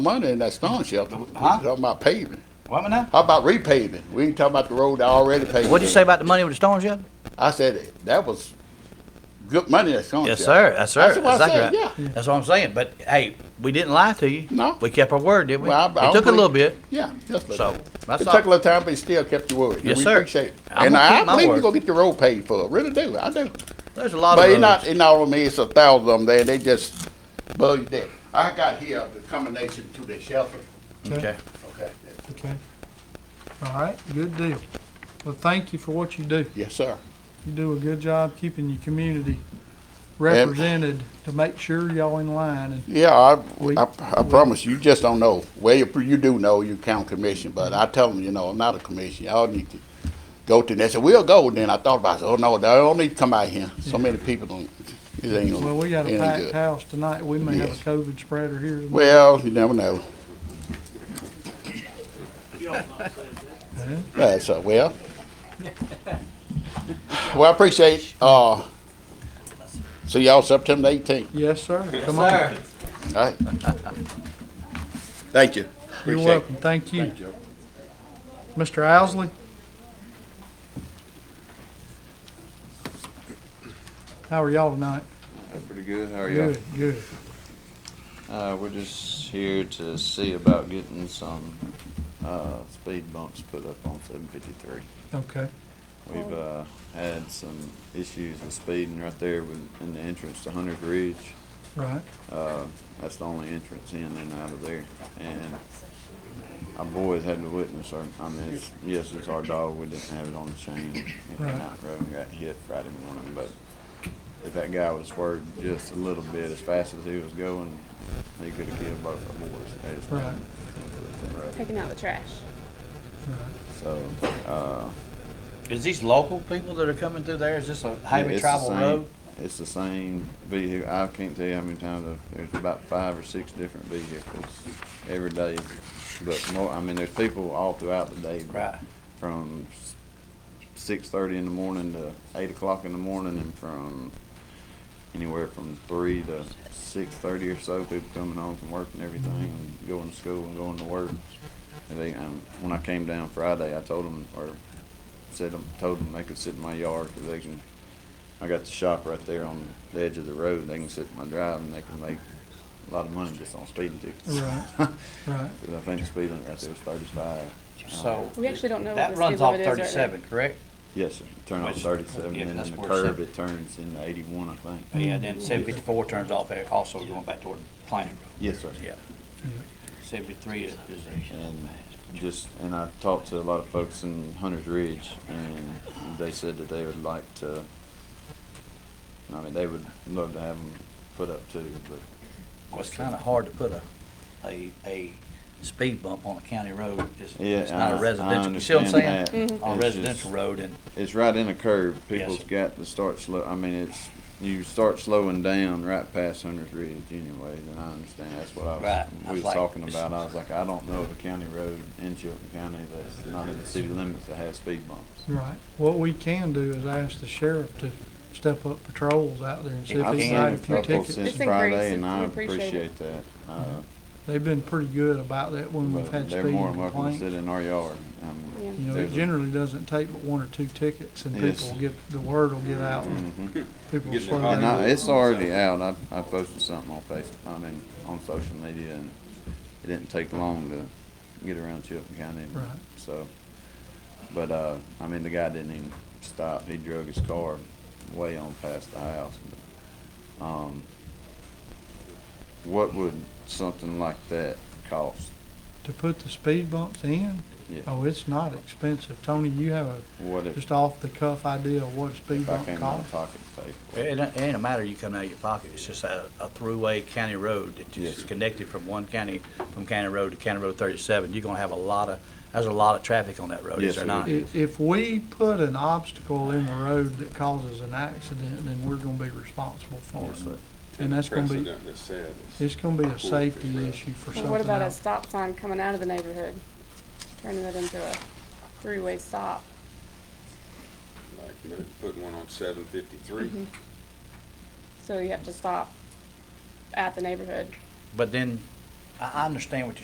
money in that stone shelter. We're Huh? talking about paving. What am I now? How about repaving? We ain't talking about the road that already paved. What'd you say about the money with the storm shelter? I said, that was good money that stone Yes, shelter. sir. That's right. That's what I Exactly said, right. That's what I'm saying. But hey, we didn't lie to you. No. We kept our word, didn't we? Well, I- I It took a believe- little bit. Yeah, just a So, little. that's It all. took a little time, but you still kept your word. Yes, We sir. appreciate it. I'm And gonna I keep my believe you're word. gonna get the road paid for. Really do. I do. There's a lot But of it's roads. not, it's not on me, it's a thousand of them there, they just bug you there. I got here the combination to the shelter, Okay. okay? Okay. All right, good deal. Well, thank you for what you do. Yes, sir. You do a good job keeping your community represented to make sure y'all in line and Yeah, I, We- I, I promise, you just don't know. Well, you, you do know you count commission, but I tell them, you know, I'm not a commission, y'all need to go to, they said, we'll go, then I thought about it, oh, no, they don't need to come out here, so many people don't, it ain't gonna, Well, we got it a ain't packed good. house tonight. We may have Yes. a COVID spreader here. Well, you never know. That's, uh, well. Well, I appreciate, uh, see y'all September eighteenth, Yes, sir. Come on. all right? Thank you. You're Appreciate it. welcome. Thank you. Mr. Owsley? How are y'all tonight? Pretty good, how are you? Good, good. Uh, we're just here to see about getting some, uh, speed bumps put up on seven fifty-three. Okay. We've, uh, had some issues with speeding right there with, in the entrance to Hunter's Ridge. Right. Uh, that's the only entrance in and out of there, and our boys had to witness, our, I mean, it's, yes, it's our dog, we didn't have it on the chain. It Right. went out road and got hit Friday morning, but if that guy was swerved just a little bit as fast as he was going, he could have killed both our boys. They just- Right. taking out the trash. So, uh, Is these local people that are coming through there? Is this a highway it's the travel same- road? It's the same vehicle, I can't tell you how many times, I've- there's about five or six different vehicles every day. But more, I mean, there's people all throughout the day. Right. From six thirty in the morning to eight o'clock in the morning and from anywhere from three to six thirty or so, people coming home from work and everything, and going to school and going to work. And they, um, when I came down Friday, I told them, or said, them- told them they could sit in my yard, cause they can, I got the shop right there on the edge of the road, they can sit in my drive and they can make a lot of money just on speeding tickets. Right. Right. Cause I think the speed limit right there was thirty-five. So We actually don't know what that the speed runs off limit is right now. thirty-seven, correct? Yes, sir, turn off Which- thirty-seven, yeah, and that's then the where curb, it's it turns into eighty-one, I think. Mm-hmm. Yeah, then seven fifty-four turns off there, also going back toward Plain Yes, sir. Road. Yeah. Mm-hmm. Seventy-three is, is and just and I talked to a lot of folks in Hunter's Ridge, and they said that they would like to. I mean, they would love to have them put up too, but Well, it's kind of hard to put a, a, a speed bump on a county road. It's, Yeah, it's not I- a I residential, you see what I'm understand saying? that. On a It's just- residential road and, it's right in a curve. People's sir. got to start slow. I mean, it's you start slowing down right past Hunter's Ridge, anyways. And I understand that's what I was, Right. I we was was like- talking about. I was like, I don't know of a county road in Chilton County that's not in the city limits that has speed bumps. Right. What we can do is ask the sheriff to step up patrols out there and see if I've he's seen got a a few couple tickets. since It's increased. Friday, and I We appreciate it. appreciate that. Uh, They've been pretty good about that when Mm-hmm. we've But had they're speeding more than welcome to complaints. sit in our yard. Um, Yeah. You know, there's it a- generally doesn't take but one or two tickets and Yes. Mm-hmm. people will get, the word will get out and people will slow And I, down. it's already out. I, I posted something on Facebook, I mean, on social media and it didn't take long to get around Chilton County. Right. So, but, uh, I mean, the guy didn't even stop. He drug his car way on past the house. But, Um, what would something like that cost? To put the speed bumps in, Yeah. oh, it's not expensive. Tony, you have a What if, just off the cuff idea of what a speed if I bump came out costs? of pocket pay? it ain't, it ain't a matter you coming out of your pocket. It's just a, a throughway county road that Yes, is sir. connected from one county, from county road to county road thirty-seven. You're gonna have a lot of, there's a lot of traffic on that road, Yes, is there sir. not? If, if we put an obstacle in the road that causes an accident, then we're gonna be responsible for Yes, sir. it. And that's gonna be, precedent that said it's- it's gonna be a safety issue for Well, what something about a else. stop sign coming out of the neighborhood? Turning that into a three-way stop. like, you know, putting one on seven fifty-three. So you have to stop at the neighborhood. But then, I, I understand what you're